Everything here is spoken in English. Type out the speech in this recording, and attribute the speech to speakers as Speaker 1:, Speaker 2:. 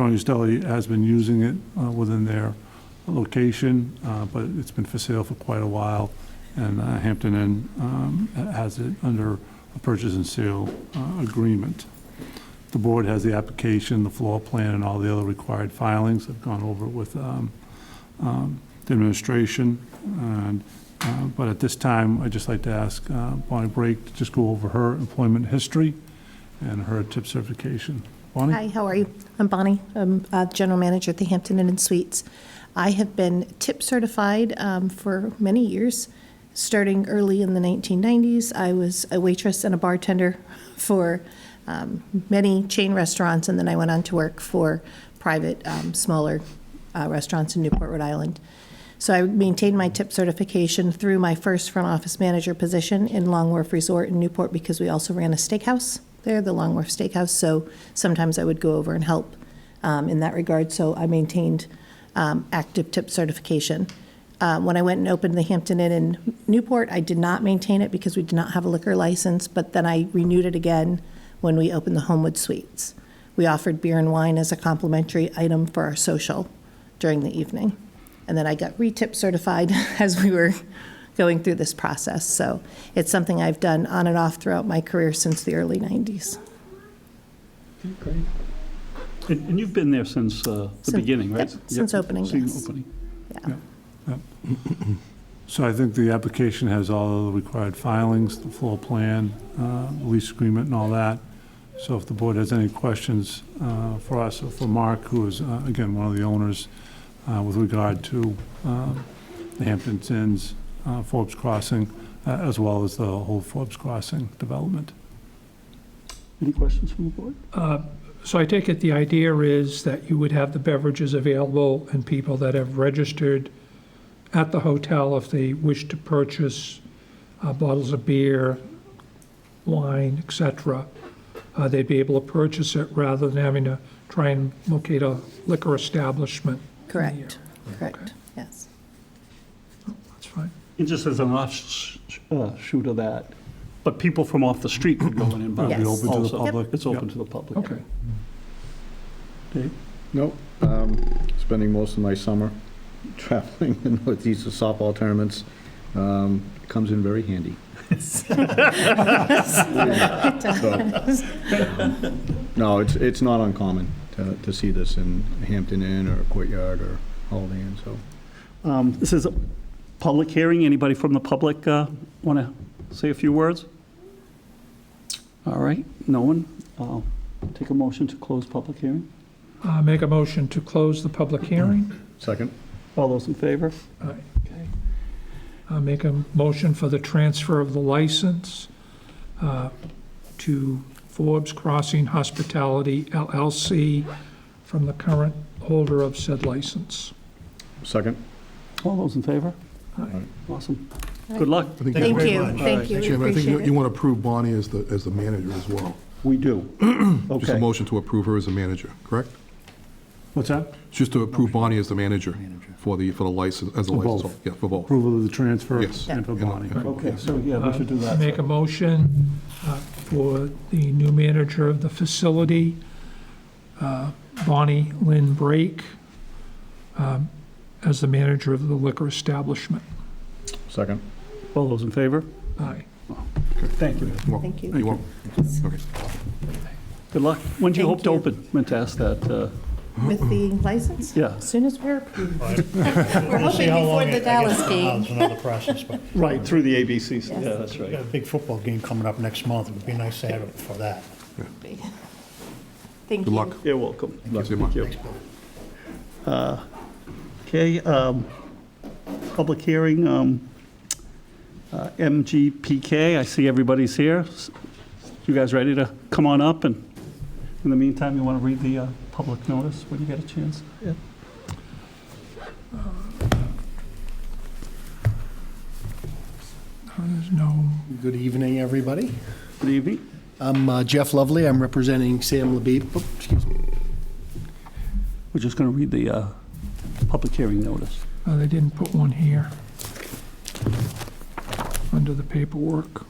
Speaker 1: Tony Stelly has been using it uh, within their location, uh, but it's been for sale for quite a while, and uh, Hampton Inn um, has it under a purchase and sale uh, agreement. The board has the application, the floor plan, and all the other required filings. I've gone over it with um, um, the administration, and, uh, but at this time, I'd just like to ask uh, Bonnie Brake to just go over her employment history and her tip certification. Bonnie?
Speaker 2: Hi, how are you? I'm Bonnie. I'm uh, General Manager at the Hampton Inn and Suites. I have been tip certified um, for many years, starting early in the 1990s. I was a waitress and a bartender for um, many chain restaurants, and then I went on to work for private, um, smaller uh, restaurants in Newport, Rhode Island. So I maintained my tip certification through my first front office manager position in Long Wharf Resort in Newport because we also ran a steakhouse there, the Long Wharf Steakhouse. So sometimes I would go over and help um, in that regard. So I maintained um, active tip certification. Uh, When I went and opened the Hampton Inn in Newport, I did not maintain it because we did not have a liquor license, but then I renewed it again when we opened the Homewood Suites. We offered beer and wine as a complimentary item for our social during the evening. And then I got re-tip certified as we were going through this process. So it's something I've done on and off throughout my career since the early 90s.
Speaker 3: Great. And and you've been there since uh, the
Speaker 2: Since-
Speaker 3: beginning, right?
Speaker 2: yep, since opening,
Speaker 3: Since
Speaker 2: yes.
Speaker 3: opening.
Speaker 2: Yeah.
Speaker 1: So I think the application has all the required filings, the floor plan, uh, lease agreement and all that. So if the board has any questions uh, for us or for Mark, who is, uh, again, one of the owners uh, with regard to um, the Hampton Inn's uh, Forbes Crossing, uh, as well as the whole Forbes Crossing development.
Speaker 3: Any questions from the board?
Speaker 4: Uh, So I take it the idea is that you would have the beverages available and people that have registered at the hotel if they wish to purchase uh, bottles of beer, wine, et cetera, uh, they'd be able to purchase it rather than having to try and locate a liquor establishment.
Speaker 2: Correct, correct, yes.
Speaker 4: That's fine.
Speaker 3: And just as an offshoot uh, of that, but people from off the street could go in and buy.
Speaker 1: It'll be
Speaker 2: Yes.
Speaker 1: open to the
Speaker 3: Also,
Speaker 1: public.
Speaker 3: It's open to the public.
Speaker 4: Okay.
Speaker 3: Dave?
Speaker 5: Nope. Um, Spending most of my summer traveling in northeast to softball tournaments. Um, Comes in very handy. So, um, No, it's, it's not uncommon to, to see this in Hampton Inn or Courtyard or Holiday Inn, so.
Speaker 3: Um, This is a public hearing. Anybody from the public want to say a few words? All right, no one? I'll Take a motion to close public hearing.
Speaker 4: Uh, Make a motion to close the public hearing.
Speaker 5: Second?
Speaker 3: All those in favor?
Speaker 4: Aye.
Speaker 3: Okay.
Speaker 4: Uh, Make a motion for the transfer of the license uh, to Forbes Crossing Hospitality LLC from the current holder of said license.
Speaker 5: Second?
Speaker 3: All those in favor?
Speaker 5: Aye.
Speaker 3: Awesome. Good luck.
Speaker 6: I think
Speaker 2: Thank
Speaker 6: very
Speaker 2: you,
Speaker 6: much.
Speaker 2: thank you, we
Speaker 6: Chairman, I think you-
Speaker 2: appreciate
Speaker 6: you
Speaker 2: it.
Speaker 6: want to approve Bonnie as the, as the manager as well.
Speaker 3: We do.
Speaker 6: Just a
Speaker 3: Okay.
Speaker 6: motion to approve her as a manager, correct?
Speaker 1: What's that?
Speaker 6: It's Just to approve Bonnie as the manager for the, for the license, as a
Speaker 1: For
Speaker 6: license.
Speaker 1: both.
Speaker 6: Yeah, for both.
Speaker 1: Approval of the transfer
Speaker 6: Yes.
Speaker 1: and for
Speaker 6: Yeah.
Speaker 1: Bonnie.
Speaker 3: Okay, so yeah, we should do
Speaker 4: Uh, Make
Speaker 3: that.
Speaker 4: a motion uh, for the new manager of the facility, uh, Bonnie Lynn Brake, um, as the manager of the liquor establishment.
Speaker 5: Second?
Speaker 3: All those in favor?
Speaker 4: Aye.
Speaker 3: Thank you.
Speaker 6: You want-
Speaker 2: Thank you.
Speaker 6: You want, okay.
Speaker 3: Good luck. When do you
Speaker 2: Thank
Speaker 3: hope to
Speaker 2: you.
Speaker 3: open? Meant to ask that, uh,
Speaker 2: With the license?
Speaker 3: yeah.
Speaker 2: As soon as we're approved. We're
Speaker 7: We'll see
Speaker 2: hoping
Speaker 7: how
Speaker 2: before
Speaker 7: long
Speaker 2: the
Speaker 7: it- I guess
Speaker 2: Dallas
Speaker 7: it's
Speaker 2: game.
Speaker 7: It's another process, but
Speaker 3: Right, through the ABCs. Yeah, that's
Speaker 7: we got
Speaker 3: right.
Speaker 7: a big football game coming up next month. It would be nice to have it before that.
Speaker 2: Thank
Speaker 6: Good
Speaker 2: you.
Speaker 6: luck.
Speaker 3: You're welcome.
Speaker 6: Thank you. Thank you.
Speaker 3: Uh, Okay, um, public hearing, um, uh, MGPK, I see everybody's here. S- You guys ready to come on up? And in the meantime, you want to read the uh, public notice when you get a chance?
Speaker 4: Uh, There's no,
Speaker 7: Good evening, everybody.
Speaker 3: Good evening.
Speaker 7: I'm uh, Jeff Lovely. I'm representing Sam Labib. Oops, Excuse me.
Speaker 3: We're just going to read the uh, public hearing notice.
Speaker 4: Oh, uh, they didn't put one here under the paperwork.